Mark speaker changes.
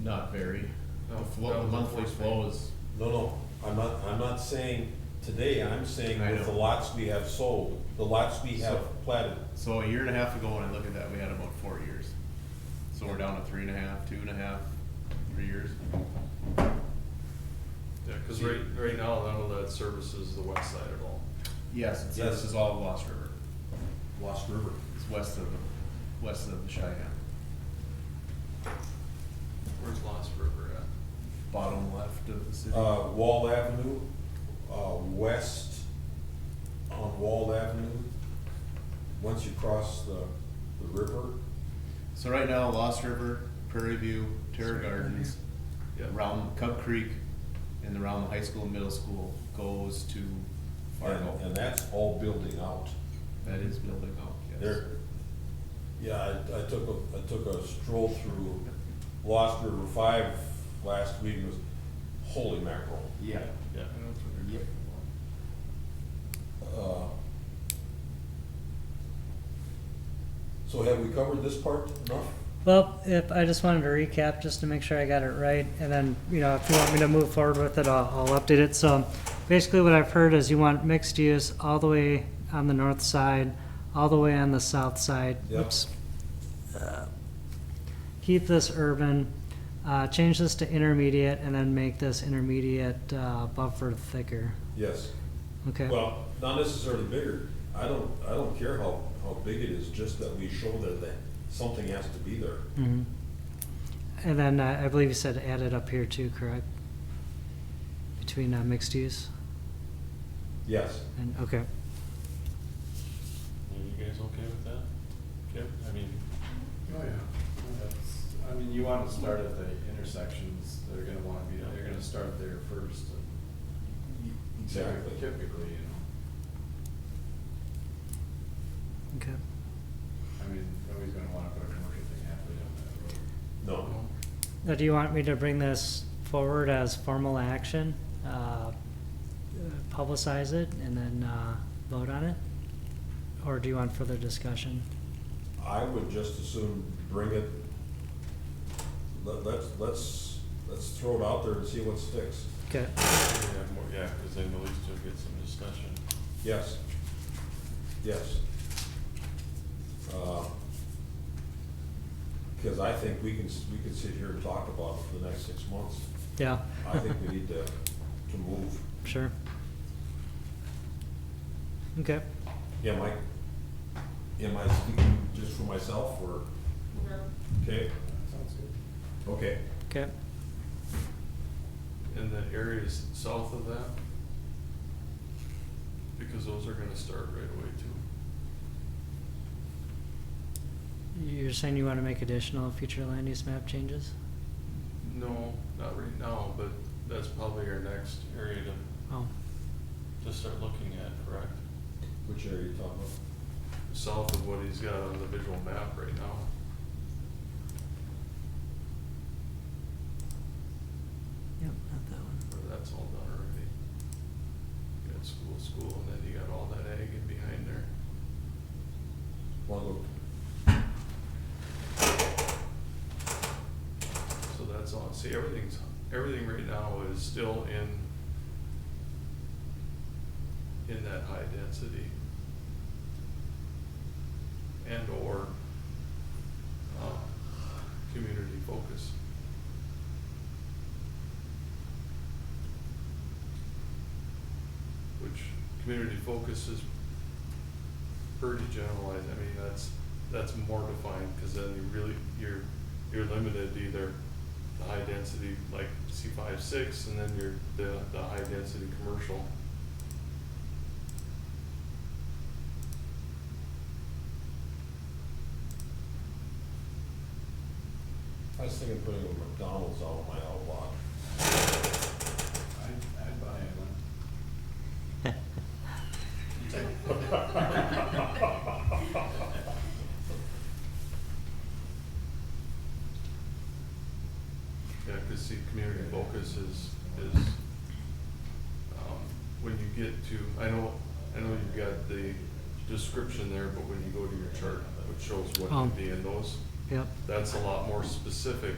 Speaker 1: not vary.
Speaker 2: No,
Speaker 1: The flow,
Speaker 2: that
Speaker 1: the
Speaker 2: was
Speaker 1: monthly
Speaker 2: the first
Speaker 1: flow is,
Speaker 3: No, no, I'm not, I'm not saying today, I'm saying
Speaker 1: I
Speaker 3: with the
Speaker 1: know.
Speaker 3: lots we have sold, the lots we have
Speaker 1: So-
Speaker 3: platted.
Speaker 1: so a year and a half ago when I look at that, we had about four years. So we're down to three and a half, two and a half, three years.
Speaker 2: Yeah, cause right, right now, none of that services the west side at all.
Speaker 1: Yes, and so
Speaker 3: Yes.
Speaker 1: this is all Lost River.
Speaker 3: Lost River.
Speaker 1: It's west of, the- west of the Cheyenne,
Speaker 2: Where's Lost River at?
Speaker 1: bottom left of the city.
Speaker 3: Uh, Wall Avenue, uh, west on Wall Avenue, once you cross the, the river.
Speaker 1: So right now, Lost River, Prairie View, Terra Gardens,
Speaker 2: Yeah,
Speaker 1: around Cub Creek, and around the high school and middle school goes to
Speaker 3: And,
Speaker 1: Fargo.
Speaker 3: and that's all building out.
Speaker 1: That is building out, yes.
Speaker 3: There, yeah, I, I took a, I took a stroll through Lost River Five last week, and was, holy mackerel.
Speaker 1: Yeah.
Speaker 2: yeah.
Speaker 1: Yep.
Speaker 3: Uh, So have we covered this part enough?
Speaker 4: Well, if, I just wanted to recap, just to make sure I got it right, and then, you know, if you want me to move forward with it, I'll, I'll update it. So basically what I've heard is you want mixed use all the way on the north side, all the way on the south side.
Speaker 3: Yep.
Speaker 4: Oops. Uh, Keep this urban, uh, change this to intermediate, and then make this intermediate, uh, buffer thicker.
Speaker 3: Yes.
Speaker 4: Okay?
Speaker 3: Well, not necessarily bigger. I don't, I don't care how, how big it is, just that we show that, that something has to be there.
Speaker 4: Mhm. And then uh, I believe you said add it up here too, correct? Between, uh, mixed use?
Speaker 3: Yes.
Speaker 4: And, okay,
Speaker 5: Are you guys okay with that? Yep. I mean,
Speaker 6: Oh, yeah, that's, I mean, you wanna start at the intersections, they're gonna wanna be, they're gonna start there first. and
Speaker 3: Exactly.
Speaker 6: Typically, you know,
Speaker 4: okay.
Speaker 6: I mean, nobody's gonna wanna put a commercial thing halfway down that road.
Speaker 3: No.
Speaker 4: Now, do you want me to bring this forward as formal action? uh, uh, Publicize it and then uh, vote on it? Or do you want further discussion?
Speaker 3: I would just as soon bring it, let, let's, let's, let's throw it out there and see what sticks.
Speaker 4: Okay,
Speaker 5: we have more, yeah, because then at least you'll get some discussion.
Speaker 3: Yes. Yes. Because I think we can, s- we can sit here and talk about it for the next six months.
Speaker 4: yeah,
Speaker 3: I think we need to, to move.
Speaker 4: sure. Okay,
Speaker 3: Yeah, Mike? Am I speaking just for myself or, okay?
Speaker 6: Sounds good.
Speaker 3: Okay.
Speaker 4: okay.
Speaker 2: And the areas south of that? Because those are gonna start right away too.
Speaker 4: You're saying you want to make additional future land use map changes?
Speaker 2: No, not right now, but that's probably our next area to,
Speaker 4: Oh,
Speaker 5: To start looking at, correct?
Speaker 3: Which area are you talking
Speaker 2: south of what he's got on the visual map right now.
Speaker 4: yep, not that one.
Speaker 2: Or that's all done already. You got school, school, and then you got all that ag in behind there.
Speaker 3: about? Want
Speaker 2: So that's all, see, everything's, everything right now is still in, in that high density. And or, uh, community focus. Which, community focus is pretty generalized, I mean, that's, that's more defined, cause then you really, you're, you're limited to either the high density, like C five, six, and then you're the, the high density commercial.
Speaker 3: to- I was thinking of putting a McDonald's out on my outlot.
Speaker 6: I'd, I'd buy it, one.
Speaker 2: Yeah, cause see, community focus is, is, um, when you get to, I know, I know you've got the description there, but when you go to your chart, which shows what
Speaker 4: Um.
Speaker 2: would be in those,
Speaker 4: Yep,
Speaker 2: that's a lot more specific